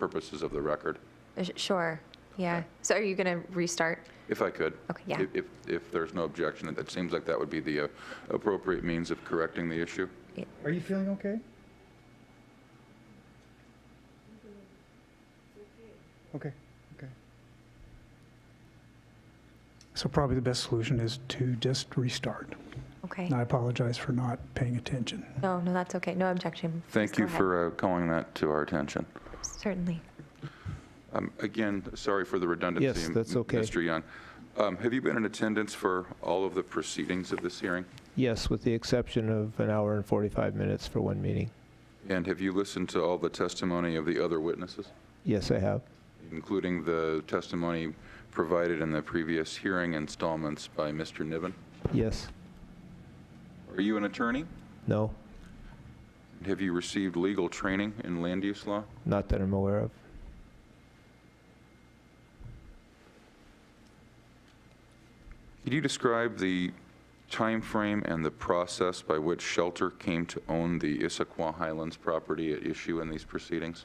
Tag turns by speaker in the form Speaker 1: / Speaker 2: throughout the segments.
Speaker 1: purposes of the record,
Speaker 2: Uh, sh- Sure, yeah. So are you going to restart?
Speaker 1: if I could.
Speaker 2: Okay, yeah.
Speaker 1: If- If, if there's no objection, that seems like that would be the uh, appropriate means of correcting the issue.
Speaker 3: Are you feeling okay? Okay, okay.
Speaker 4: So probably the best solution is to just restart.
Speaker 2: Okay.
Speaker 4: And I apologize for not paying attention.
Speaker 2: No, no, that's okay. No objection.
Speaker 1: Thank
Speaker 2: Please go
Speaker 1: you
Speaker 2: ahead.
Speaker 1: for uh, calling that to our attention.
Speaker 2: Certainly.
Speaker 1: Um, Again, sorry for the redundancy.
Speaker 5: Yes, that's
Speaker 1: M-
Speaker 5: okay.
Speaker 1: Mr. Young. Um, Have you been in attendance for all of the proceedings of this hearing?
Speaker 5: Yes, with the exception of an hour and 45 minutes for one meeting.
Speaker 1: And have you listened to all the testimony of the other witnesses,
Speaker 5: Yes, I have.
Speaker 1: including the testimony provided in the previous hearing installments by Mr. Niven?
Speaker 5: Yes.
Speaker 1: Are you an attorney?
Speaker 5: No,
Speaker 1: Have you received legal training in land use law?
Speaker 5: not that I'm aware of.
Speaker 1: Could you describe the timeframe and the process by which Shelter came to own the Issaquah Highlands property at issue in these proceedings?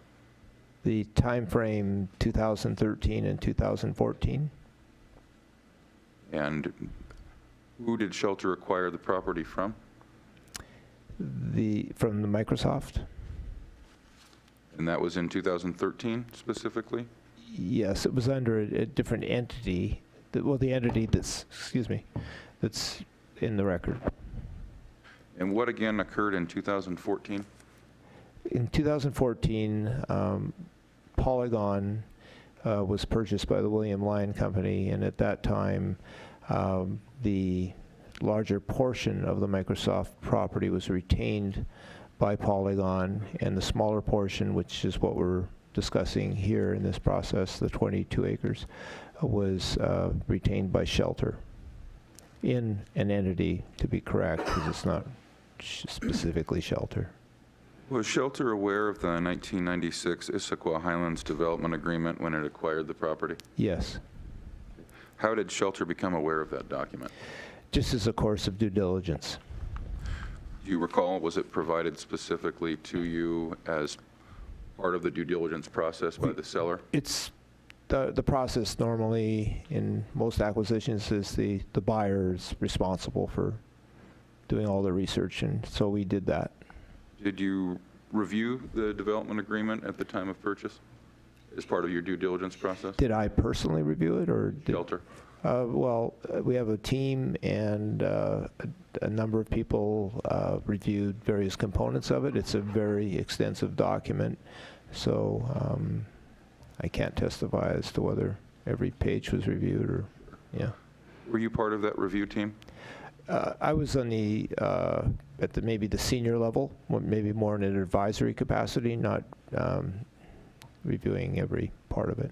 Speaker 5: The time frame 2013 and 2014,
Speaker 1: And who did Shelter acquire the property from?
Speaker 5: the, from the Microsoft?
Speaker 1: And that was in 2013 specifically?
Speaker 5: Yes, it was under a a different entity, that- well, the entity that's, excuse me, that's in the record.
Speaker 1: And what again occurred in 2014?
Speaker 5: In 2014, um, Polygon uh, was purchased by the William Lyon Company, and at that time, um, the larger portion of the Microsoft property was retained by Polygon, and the smaller portion, which is what we're discussing here in this process, the 22 acres, uh, was uh, retained by Shelter in an entity, to be correct, because it's not sh- specifically Shelter.
Speaker 1: Was Shelter aware of the 1996 Issaquah Highlands Development Agreement when it acquired the property?
Speaker 5: Yes.
Speaker 1: How did Shelter become aware of that document?
Speaker 5: Just as a course of due diligence.
Speaker 1: Do you recall, was it provided specifically to you as part of the due diligence process by the seller?
Speaker 5: It's, the, the process normally in most acquisitions is the, the buyer is responsible for doing all the research, and so we did that.
Speaker 1: Did you review the development agreement at the time of purchase as part of your due diligence process?
Speaker 5: Did I personally review it, or? did-
Speaker 1: Shelter?
Speaker 5: Uh, Well, uh, we have a team, and uh, a a number of people uh, reviewed various components of it. It's a very extensive document, so um, I can't testify as to whether every page was reviewed or, yeah.
Speaker 1: Were you part of that review team?
Speaker 5: Uh, I was on the, uh, at the, maybe the senior level, or maybe more in an advisory capacity, not um, reviewing every part of it.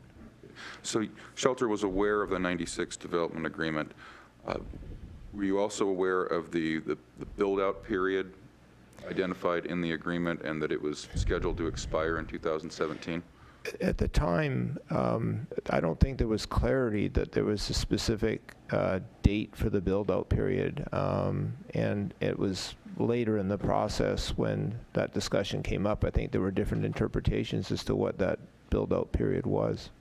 Speaker 1: So Shelter was aware of the 96 development agreement. Uh, Were you also aware of the, the the build-out period identified in the agreement and that it was scheduled to expire in 2017?
Speaker 5: At the time, um, I don't think there was clarity that there was a specific uh, date for the build-out period. Um, And it was later in the process when that discussion came up. I think there were different interpretations as to what that build-out period was.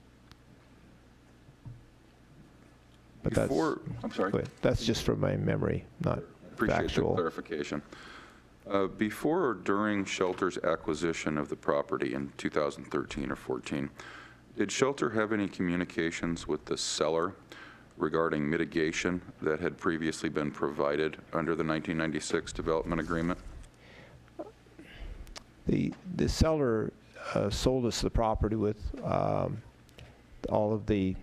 Speaker 5: But that's-
Speaker 1: Before, I'm sorry.
Speaker 5: Wait, That's just from my memory, not
Speaker 1: Appreciate the
Speaker 5: factual.
Speaker 1: clarification. Uh, Before or during Shelter's acquisition of the property in 2013 or 14, did Shelter have any communications with the seller regarding mitigation that had previously been provided under the 1996 development agreement?
Speaker 5: The, the seller uh, sold us the property with um, all of the,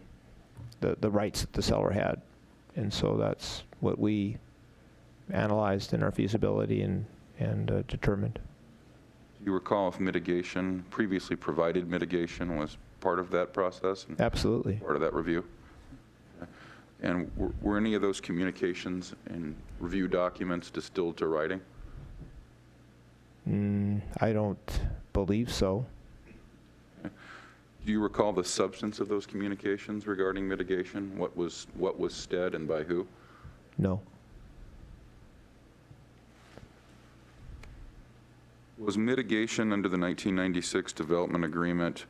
Speaker 5: the the rights that the seller had. And so that's what we analyzed in our feasibility and, and uh, determined.
Speaker 1: Do you recall if mitigation, previously provided mitigation, was part of that process and
Speaker 5: Absolutely.
Speaker 1: part of that review? And were- were any of those communications and review documents distilled to writing?
Speaker 5: Mm, I don't believe so.
Speaker 1: Do you recall the substance of those communications regarding mitigation? What was, what was said and by who?
Speaker 5: No.
Speaker 1: Was mitigation under the 1996 development agreement